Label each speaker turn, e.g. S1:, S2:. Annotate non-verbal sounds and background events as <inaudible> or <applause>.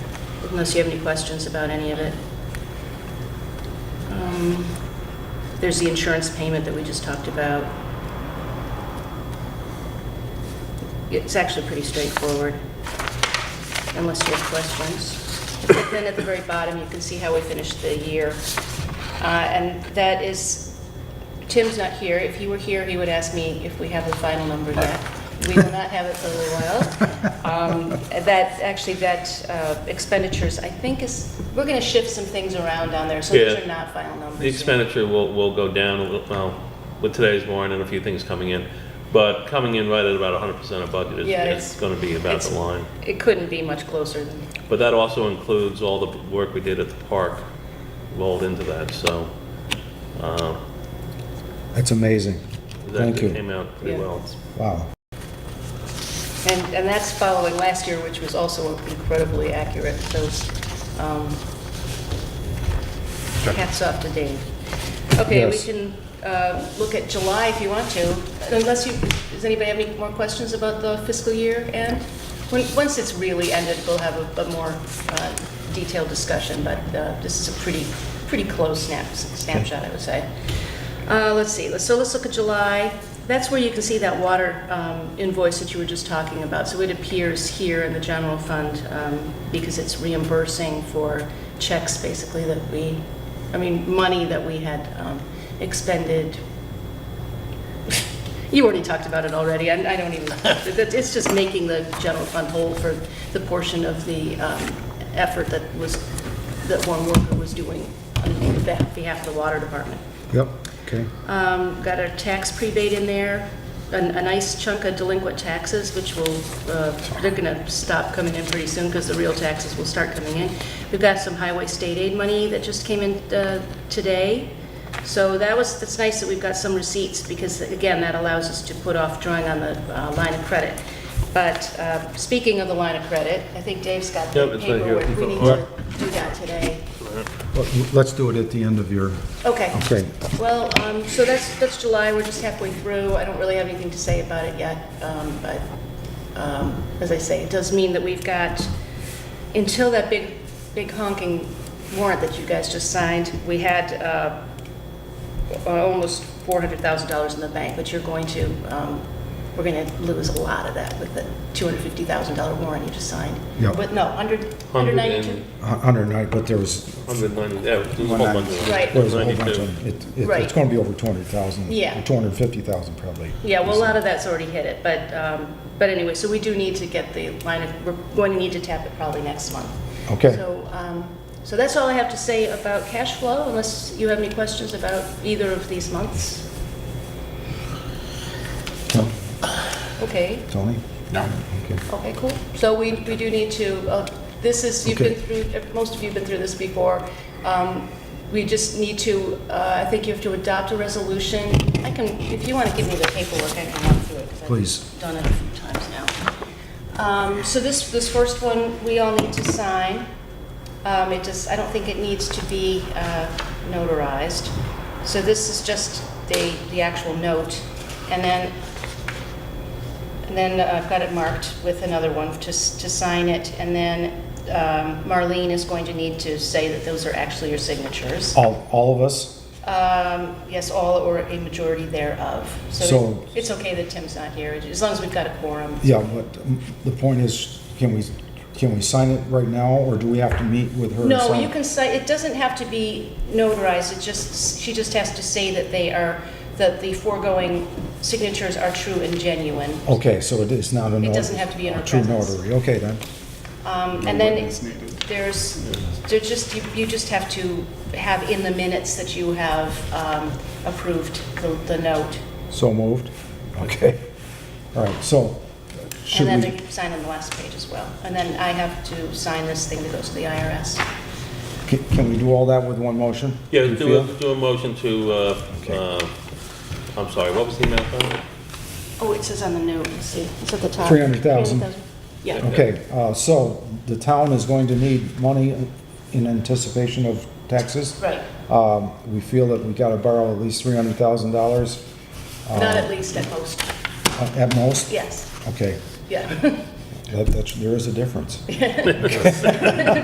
S1: unless you have any questions about any of it. Um, There's the insurance payment that we just talked about. It's actually pretty straightforward, unless you have questions. But Then at the very bottom, you can see how we finished the year. Uh, And that is, Tim's not here. If he were here, he would ask me if we have the final number yet. We will not have it for a little while. Um, That, actually, that uh, expenditures, I think is, we're going to shift some things around down there, so these
S2: Yeah.
S1: are not final numbers.
S2: The
S1: yet.
S2: expenditure will, will go down a little, well, with today's warrant and a few things coming in, but coming in right at about hundred percent of budget is,
S1: Yeah,
S2: is
S1: it's-
S2: gonna be about the
S1: it's-
S2: line.
S1: It couldn't be much closer than,
S2: But that also includes all the work we did at the park rolled into that, so, uh,
S3: That's amazing.
S2: that
S3: Thank
S2: came
S3: you.
S2: out pretty
S1: Yeah.
S2: well.
S3: Wow.
S1: and, and that's following last year, which was also incredibly accurate, those, um, hats off to Dave. Okay, we
S3: Yes.
S1: can, uh, look at July if you want to, unless you, does anybody have any more questions about the fiscal year end? When, once it's really ended, we'll have a, a more, uh, detailed discussion, but, uh, this is a pretty, pretty close snap, snapshot, I would say. Uh, let's see, so let's look at July. That's where you can see that water um, invoice that you were just talking about. So it appears here in the general fund um, because it's reimbursing for checks, basically, that we, I mean, money that we had um, expended. <laughs> You already talked about it already, I I don't even, that- it's just making the general fund whole for the portion of the um, effort that was, that one worker was doing on behalf behalf of the water department.
S3: Yep, okay.
S1: Um, Got a tax prebate in there, a a nice chunk of delinquent taxes, which will, uh, they're going to stop coming in pretty soon because the real taxes will start coming in. We've got some highway state aid money that just came in uh, today. So that was, that's nice that we've got some receipts because, again, that allows us to put off drawing on the uh, line of credit. But uh, speaking of the line of credit, I think Dave's got
S2: Yep,
S1: the
S2: it's right here.
S1: paperwork. We need to do that today.
S3: Well, Let's do it at the end of your,
S1: Okay.
S3: okay.
S1: Well, um, so that's, that's July, we're just halfway through, I don't really have anything to say about it yet, um, but, um, as I say, it does mean that we've got, until that big, big honking warrant that you guys just signed, we had, uh, uh, almost $400,000 in the bank, but you're going to, um, we're going to lose a lot of that with the $250,000 warrant you just signed.
S3: Yeah.
S1: But no, 100,
S2: Hundred
S1: 192?
S2: and,
S3: A hundred and nine, but there was,
S2: hundred ninety, yeah, there's a whole
S3: One
S2: bunch of
S1: ninety-
S2: them.
S1: Right.
S3: there was a whole bunch
S2: 92.
S3: of, it- it-
S1: Right.
S3: it's going to be over 200,000.
S1: Yeah.
S3: 250,000 probably.
S1: Yeah, well, a lot of that's already hit it, but, um, but anyway, so we do need to get the line of, we're going to need to tap it probably next month.
S3: Okay.
S1: So, um, so that's all I have to say about cash flow, unless you have any questions about either of these months.
S3: No,
S1: Okay,
S3: Tony? No. Okay.
S1: okay, cool. So we, we do need to, uh, this is, you've been
S3: Okay.
S1: through, most of you have been through this before. Um, We just need to, uh, I think you have to adopt a resolution. I can, if you want to give me the paperwork, I can run through it. 'cause I've
S3: Please.
S1: Done it a few times now. Um, So this, this first one, we all need to sign. Um, It just, I don't think it needs to be uh, notarized. So this is just the, the actual note. And then, and then uh, I've got it marked with another one to, s- to sign it. And then um, Marlene is going to need to say that those are actually your signatures.
S3: All, all of us?
S1: Um, Yes, all or a majority thereof. So
S3: So-
S1: it's okay that Tim's not here, as long as we've got a quorum.
S3: Yeah, but um, the point is, can we, can we sign it right now, or do we have to meet with her? or
S1: No,
S3: sign-
S1: you can say, it doesn't have to be notarized, it just, she just has to say that they are, that the foregoing signatures are true and genuine.
S3: Okay, so it is not a.
S1: It
S3: notary-
S1: doesn't have to be in her
S3: a True
S1: presence.
S3: notary, okay then.
S1: Um, And then there's, there's just, you- you just have to have in the minutes that you have um, approved the the note.
S3: So moved? Okay. All right, so should
S1: And
S3: we?
S1: then they sign on the last page as well. And then I have to sign this thing that goes to the IRS.
S3: Can can we do all that with one motion?
S2: Yeah, do
S3: You feel?
S2: a, do a motion to, uh,
S3: Okay.
S2: uh, I'm sorry, what was the amount on it?
S1: Oh, it says on the note, let's see, it's at the top.
S3: 300,000.
S1: 300,000. Yeah.
S3: Okay, uh, so the town is going to need money in anticipation of taxes.
S1: Right.
S3: Um, We feel that we gotta borrow at least $300,000
S1: Not at least at most,
S3: uh, at most?
S1: yes,
S3: Okay,
S1: yeah. <laughs>
S3: that, that's, there is a difference.